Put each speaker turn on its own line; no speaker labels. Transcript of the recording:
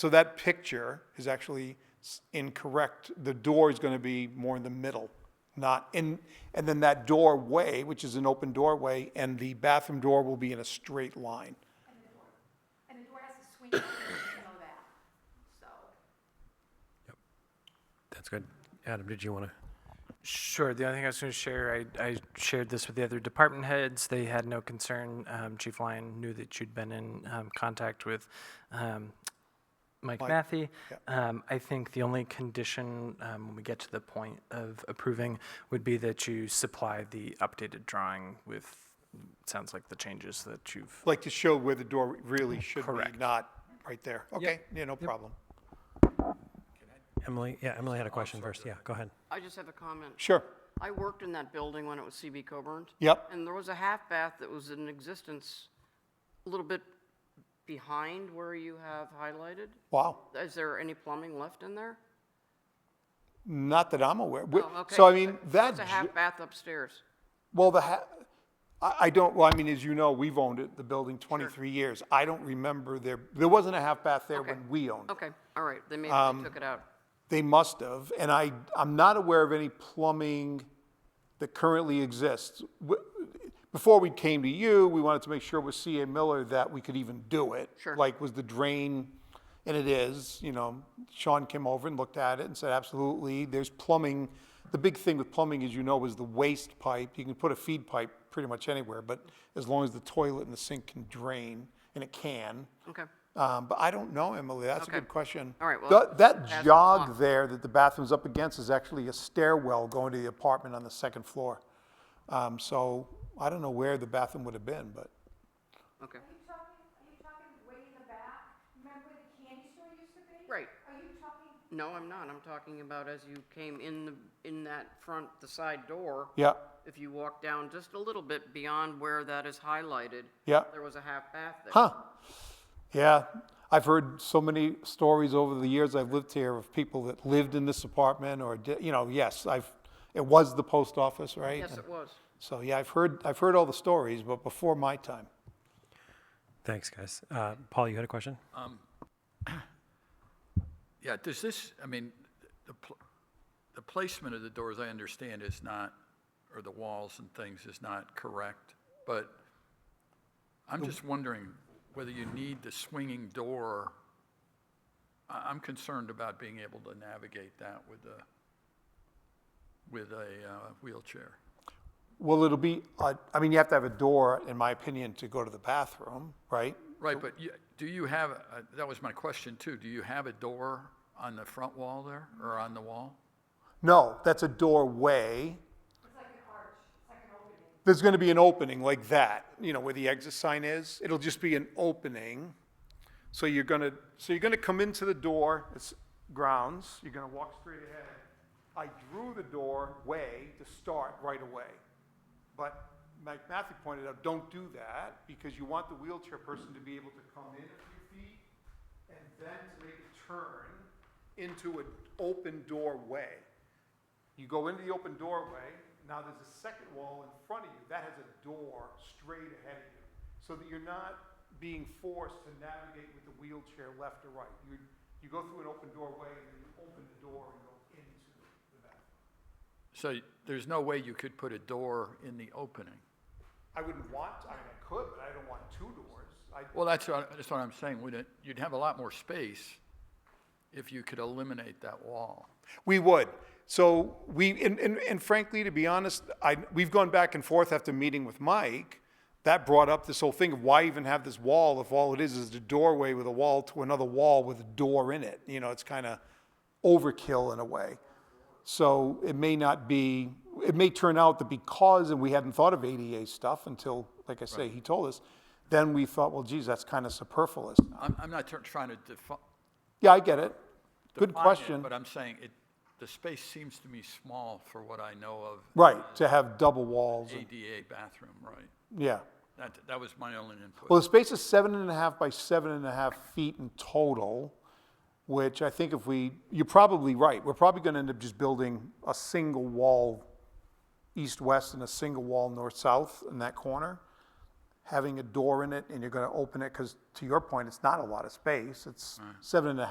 So that picture is actually s- incorrect. The door is going to be more in the middle, not in, and then that doorway, which is an open doorway, and the bathroom door will be in a straight line.
And the door has to swing open, you know that, so.
That's good. Adam, did you want to?
Sure. The only thing I was going to share, I, I shared this with the other department heads. They had no concern. Um, Chief Lyon knew that you'd been in um, contact with um, Mike, Matthew. Um, I think the only condition um, when we get to the point of approving would be that you supply the updated drawing with, sounds like the changes that you've.
Like to show where the door really should be,
Correct.
not right there. Okay, yeah, no problem.
Emily, yeah, Emily had a question first. Yeah, go ahead.
I just have a comment.
Sure.
I worked in that building when it was CB Coburn.
Yep.
And there was a half bath that was in existence a little bit behind where you have highlighted.
Wow.
Is there any plumbing left in there?
Not that I'm aware. We-
Oh, okay.
So I mean, that,
It's a
j-
half bath upstairs.
well, the, ha- I, I don't, well, I mean, as you know, we've owned it, the building 23 years. I don't remember there, there wasn't a half bath there
Okay.
when we owned it.
Okay, all right, they maybe
Um,
they took it out.
They must have, and I, I'm not aware of any plumbing that currently exists. W- Before we came to you, we wanted to make sure with CA Miller that we could even do it.
Sure.
Like, was the drain, and it is, you know, Sean came over and looked at it and said, absolutely, there's plumbing. The big thing with plumbing, as you know, is the waste pipe. You can put a feed pipe pretty much anywhere, but as long as the toilet and the sink can drain, and it can.
Okay,
Um, but I don't know, Emily. That's a
Okay.
good question.
All right, well,
That-
ask
That
them
jog
tomorrow.
there that the bathroom's up against is actually a stairwell going to the apartment on the second floor. Um, so I don't know where the bathroom would have been, but
okay.
Are you talking, are you talking way in the back? Remember where the candy store used to be?
Right.
Are you talking,
No, I'm not, I'm talking about as you came in the, in that front, the side door.
yeah,
If you walk down just a little bit beyond where that is highlighted.
Yeah.
There was a half bath there.
huh? Yeah, I've heard so many stories over the years I've lived here of people that lived in this apartment or di you know, yes, I've. It was the post office, right?
Yes,
And
it was.
So yeah, I've heard I've heard all the stories, but before my time.
Thanks, guys. Uh, Paul, you had a question?
Yeah, does this, I mean, the, pl- the placement of the doors, I understand, is not, or the walls and things is not correct, but I'm just wondering whether you need the swinging door. I, I'm concerned about being able to navigate that with a, with a uh, wheelchair.
Well, it'll be, uh, I mean, you have to have a door, in my opinion, to go to the bathroom, right?
Right, but you, do you have, a- that was my question too, do you have a door on the front wall there, or on the wall?
No, that's a doorway. There's going to be an opening like that, you know, where the exit sign is. It'll just be an opening. So you're going to, so you're going to come into the door, it's grounds, you're going to walk straight ahead. I drew the doorway to start right away. But Mike Matthew pointed out, don't do that because you want the wheelchair person to be able to come in a few feet and then to make a turn into an open doorway. You go into the open doorway, now there's a second wall in front of you, that has a door straight ahead of you, so that you're not being forced to navigate with the wheelchair left or right. You, you go through an open doorway, and then you open the door and go into the bathroom.
So y- there's no way you could put a door in the opening?
I wouldn't want, I mean, I could, but I don't want two doors. I,
Well, that's what, that's what I'm saying, wouldn't it? You'd have a lot more space if you could eliminate that wall.
We would. So we, and, and, and frankly, to be honest, I, we've gone back and forth after meeting with Mike. That brought up this whole thing of why even have this wall if all it is is the doorway with a wall to another wall with a door in it. You know, it's kind of overkill in a way. So it may not be, it may turn out that because, and we hadn't thought of ADA stuff until, like I say, he told us, then we thought, well, geez, that's kind of superfluous.
I'm, I'm not tr- trying to defi- define.
Yeah, I get it. Good
it,
question.
But I'm saying it, the space seems to me small for what I know of
Right, to have double walls. and-
ADA bathroom, right?
Yeah.
That, that was my only input.
Well, the space is seven and a half by seven and a half feet in total, which I think if we, you're probably right. We're probably going to end up just building a single wall east-west and a single wall north-south in that corner, having a door in it, and you're going to open it, because to your point, it's not a lot of space. It's seven and a half.